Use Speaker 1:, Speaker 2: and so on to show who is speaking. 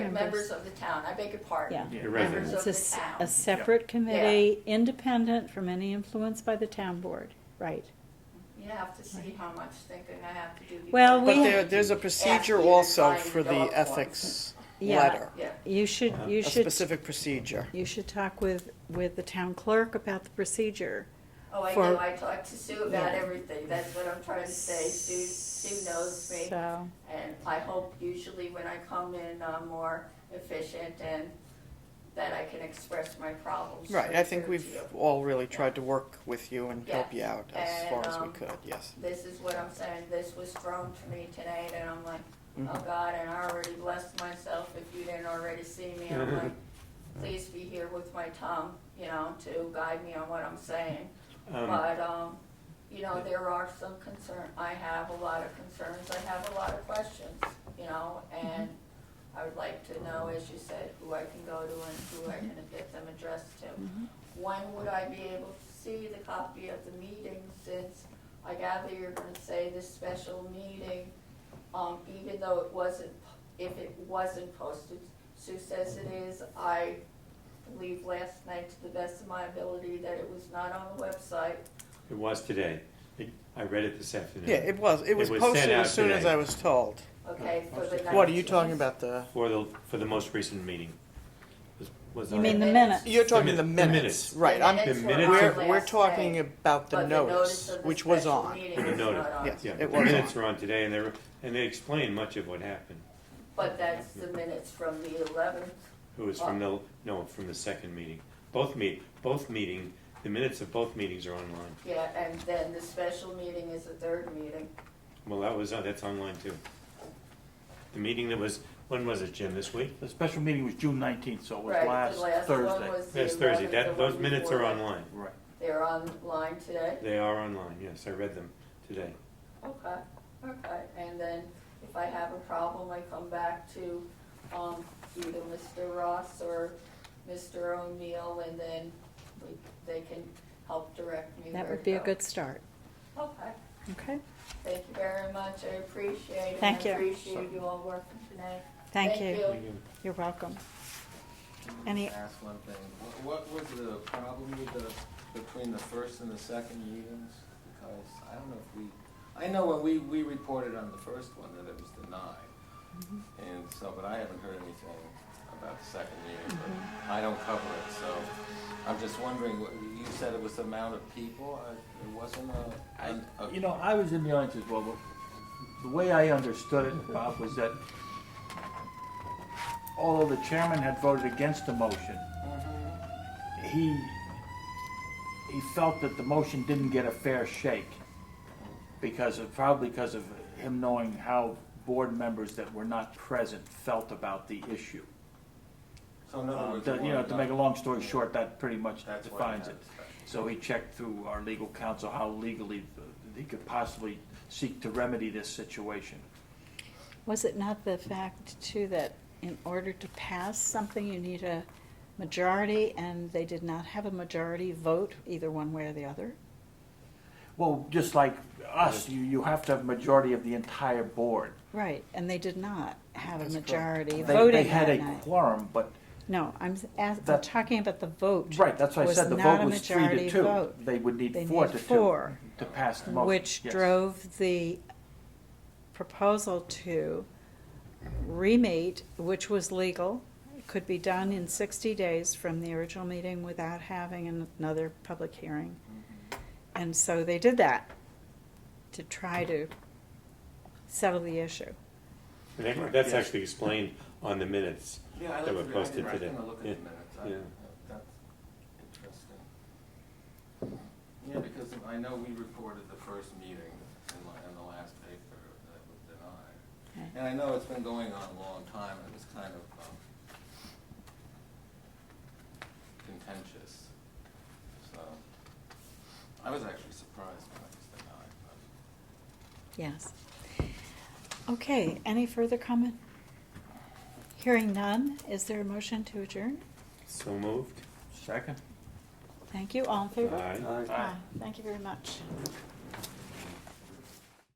Speaker 1: members of the town, I beg your pardon.
Speaker 2: Yeah.
Speaker 3: Your
Speaker 1: Members
Speaker 3: residents.
Speaker 2: It's a,
Speaker 1: of the
Speaker 2: s-
Speaker 1: town.
Speaker 2: a separate committee, independent from any influence by the town board, right?
Speaker 1: You have to see how much thinking I have to do. before-
Speaker 2: Well,
Speaker 4: But
Speaker 2: we-
Speaker 4: there, there's a procedure
Speaker 1: you to
Speaker 4: also
Speaker 1: sign
Speaker 4: for
Speaker 1: the
Speaker 4: the
Speaker 1: dog
Speaker 4: ethics
Speaker 2: Yeah.
Speaker 4: letter.
Speaker 1: Yeah,
Speaker 2: You should, you
Speaker 4: A
Speaker 2: should,
Speaker 4: specific procedure.
Speaker 2: you should talk with, with the town clerk about the procedure.
Speaker 1: oh, I
Speaker 2: For-
Speaker 1: know, I talked to Sue about
Speaker 2: Yeah.
Speaker 1: everything, that's what I'm trying to say, Sue, Sue knows me.
Speaker 2: So, mm-hmm.
Speaker 1: And I hope usually when I come in, I'm more efficient and that I can express my problems.
Speaker 4: Right, I think
Speaker 1: through
Speaker 4: we've
Speaker 1: you.
Speaker 4: all really tried to work with you and help you out as
Speaker 1: And,
Speaker 4: far as we
Speaker 1: um,
Speaker 4: could, yes.
Speaker 1: This is what I'm saying, this was thrown to me tonight and I'm like, oh
Speaker 4: Mhm.
Speaker 1: God, and I already blessed myself if you didn't already see me. I'm like, please be here with my tongue, you know, to guide me on what I'm saying.
Speaker 3: Um,
Speaker 1: But, um, you know, there are some concern, I have a lot of concerns, I have a lot of questions, you know, and I would like to know, as you said, who I can go to and who I can get them addressed to. When would I be able to see the copy of the meeting, since I gather you're gonna say this special meeting, um, even though it wasn't, if it wasn't posted, Sue says it is, I believe last night to the best of my ability that it was not on the website.
Speaker 3: It was today. It- I read it this afternoon.
Speaker 4: Yeah, it was, it was
Speaker 3: was sent
Speaker 4: posted
Speaker 3: out
Speaker 4: as soon as
Speaker 3: today.
Speaker 4: I was told.
Speaker 1: Okay, for the
Speaker 4: What are you
Speaker 1: 19th?
Speaker 4: talking about, the,
Speaker 3: For the, for the most recent meeting. Was- was
Speaker 2: you
Speaker 3: on-
Speaker 2: mean the
Speaker 1: The
Speaker 2: minutes?
Speaker 4: you're talking the
Speaker 3: min- the minutes.
Speaker 4: minutes, right, I'm,
Speaker 1: minutes
Speaker 3: The
Speaker 1: were
Speaker 3: minutes
Speaker 1: on
Speaker 3: are-
Speaker 4: we're,
Speaker 1: last
Speaker 4: we're
Speaker 1: day,
Speaker 4: talking about the
Speaker 1: but
Speaker 4: notice,
Speaker 1: of the
Speaker 4: which was
Speaker 1: special
Speaker 4: on.
Speaker 1: meeting
Speaker 3: For the
Speaker 1: was not
Speaker 3: notice,
Speaker 1: on.
Speaker 4: Yes.
Speaker 3: Yeah,
Speaker 4: It
Speaker 3: the
Speaker 4: was
Speaker 3: minutes
Speaker 4: on.
Speaker 3: are on today and they were, and they explained much of what happened.
Speaker 1: But that's the minutes from the eleventh,
Speaker 3: It was from the, no, from the second meeting. Both meet, both meeting, the minutes of both meetings are online.
Speaker 1: yeah, and then the special meeting is the third meeting.
Speaker 3: Well, that was, on- that's online too. The meeting that was, when was it, Jim, this week?
Speaker 5: The special meeting was June nineteenth, so it was
Speaker 1: Right, the
Speaker 5: last
Speaker 1: one
Speaker 5: Thursday.
Speaker 1: was the
Speaker 3: Yes, Thursday.
Speaker 1: 11th,
Speaker 3: That,
Speaker 1: the one
Speaker 3: those minutes are
Speaker 1: before that.
Speaker 3: online.
Speaker 5: Right.
Speaker 1: They're online today?
Speaker 3: They are online, yes, I read them today.
Speaker 1: Okay, okay, and then if I have a problem, I come back to, um, either Mr. Ross or Mr. O'Neill, and then we, they can help direct me
Speaker 2: That
Speaker 1: where
Speaker 2: would
Speaker 1: to
Speaker 2: be a
Speaker 1: go.
Speaker 2: good start,
Speaker 1: Okay,
Speaker 2: okay?
Speaker 1: thank you very much, I appreciate it.
Speaker 2: Thank you.
Speaker 1: I appreciate you all working today.
Speaker 2: Thank you,
Speaker 3: Thank you.
Speaker 2: you're welcome. Any-
Speaker 6: Ask one thing, Wha- what was the problem with the, between the first and the second meetings? Because I don't know if we, I know when we, we reported on the first one that it was denied. And so, but I haven't heard anything about the second meeting, but I don't cover it, so I'm just wondering, what- you said it was the amount of people, Uh, it wasn't a-
Speaker 5: I,
Speaker 6: an- a.
Speaker 5: you know, I was in the audience as well, but the way I understood it, Bob, was that although the chairman had voted against the motion,
Speaker 1: Mm-hmm.
Speaker 5: he, he felt that the motion didn't get a fair shake because of, probably because of him knowing how board members that were not present felt about the issue.
Speaker 6: So in other
Speaker 5: Uh,
Speaker 6: words.
Speaker 5: the-
Speaker 6: it
Speaker 5: You know,
Speaker 6: wasn't
Speaker 5: to make a
Speaker 6: done.
Speaker 5: long story short, that pretty much
Speaker 6: That's what I
Speaker 5: defines it.
Speaker 6: had.
Speaker 5: So he checked through our legal counsel how legally he could possibly seek to remedy this situation.
Speaker 2: Was it not the fact too that in order to pass something, you need a majority, and they did not have a majority vote either one way or the other?
Speaker 5: Well, just like us, you, you have to have majority of the entire board.
Speaker 2: Right, and they did not have a
Speaker 4: That's correct.
Speaker 2: majority
Speaker 5: They-
Speaker 2: voting
Speaker 5: They had
Speaker 2: that
Speaker 5: a
Speaker 2: night.
Speaker 5: quorum, but,
Speaker 2: No, I'm, s- as- I'm
Speaker 5: That-
Speaker 2: talking about the vote.
Speaker 5: right, that's why I
Speaker 2: was
Speaker 5: said the
Speaker 2: not
Speaker 5: vote
Speaker 2: a
Speaker 5: was three
Speaker 2: majority
Speaker 5: to two.
Speaker 2: vote,
Speaker 5: They would
Speaker 2: They
Speaker 5: need four
Speaker 2: need
Speaker 5: to two
Speaker 2: four,
Speaker 5: to pass the motion.
Speaker 2: Which
Speaker 5: Yes.
Speaker 2: drove the proposal to remate, which was legal, It could be done in sixty days from the original meeting without having an- another public hearing.
Speaker 5: Mm-hmm.
Speaker 2: And so they did that to try to settle the issue.
Speaker 3: And that- That's
Speaker 5: Yes.
Speaker 3: actually explained on the minutes
Speaker 6: Yeah, I
Speaker 3: that
Speaker 6: looked
Speaker 3: were
Speaker 6: at it. I
Speaker 3: posted
Speaker 6: did- I was
Speaker 3: today.
Speaker 6: gonna look at the
Speaker 3: Yeah.
Speaker 6: minutes. I-
Speaker 3: Yeah.
Speaker 6: That's interesting. Yeah, because I know we reported the first meeting in la- in the last paper that was
Speaker 2: Okay.
Speaker 6: denied. And I know it's been going on a long time, and it was kind of um, contentious, so. I was actually surprised when it was denied, but
Speaker 2: Yes. Okay, any further comment? Hearing none, is there a motion to adjourn?
Speaker 3: So moved.
Speaker 5: Second?
Speaker 2: Thank you, all in favor?
Speaker 3: Aye.
Speaker 2: Aye. Thank you very much.